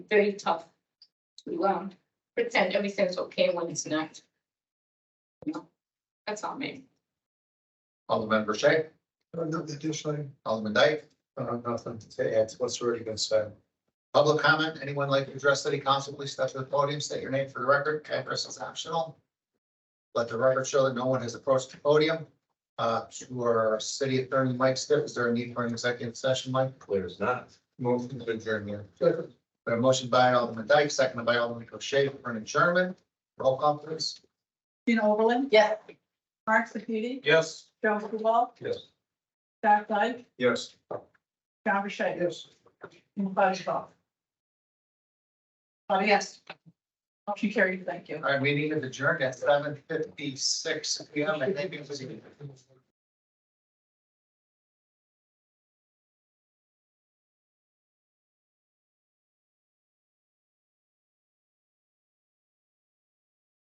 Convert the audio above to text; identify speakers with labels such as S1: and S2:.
S1: very tough to um pretend everything's okay when it's not. You know, That's all me.
S2: Alderman Verche,
S3: Nothing additionally,
S2: Alderman Dyke,
S3: uh, nothing.
S2: to add to what's already been said. Public comment, anyone like to address city council, please step to the podium, state your name for the record, address is optional. Let the record show that no one has approached the podium. Uh, to our city attorney, Mike Stiff, is there a need for an executive session, Mike?
S4: Clear as not.
S2: Move to adjourn here. A motion by Alderman Dyke, seconded by Alderman Verche for an adjournment. Roll call please.
S5: Gina Oberlin.
S1: Yes.
S5: Mark Sepiti.
S2: Yes.
S5: Joe Kubal.
S2: Yes.
S5: Jack Dyke.
S2: Yes.
S5: John Burchett.
S3: Yes.
S5: And Buzz Shaw. Oh, yes. Motion carried. Thank you.
S2: All right, we need to adjourn at seven fifty-six P M. I think it was.